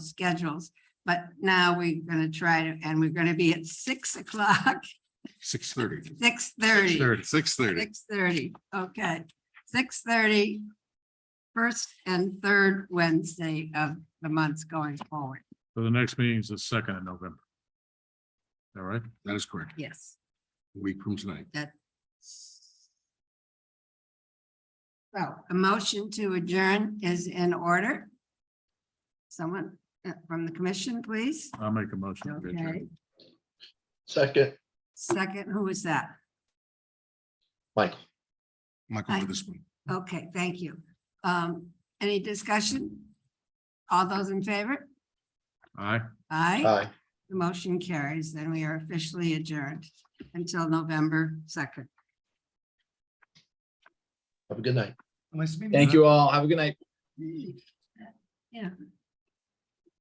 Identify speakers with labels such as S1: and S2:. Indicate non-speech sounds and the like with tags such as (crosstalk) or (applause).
S1: schedules. But now we're gonna try to, and we're gonna be at six o'clock, (laughs)
S2: Six thirty.
S1: six thirty.
S2: Six thirty.
S1: Six thirty, okay, six thirty. First and third Wednesday of the months going forward,
S3: So the next meeting is the second of November. All right,
S2: That is correct.
S1: yes.
S2: A week from tonight.
S1: So a motion to adjourn is in order. Someone uh, from the commission, please.
S3: I'll make a motion. to adjourn.
S1: Okay,
S4: Second,
S1: second, who is that?
S4: Michael.
S2: Michael,
S1: Aye.
S2: for this one.
S1: Okay, thank you. Um, any discussion? All those in favor?
S3: Aye.
S1: Aye.
S4: Aye.
S1: The motion carries, then we are officially adjourned until November second.
S4: Have a good night.
S5: Thank you all. Have a good night.
S1: Yeah,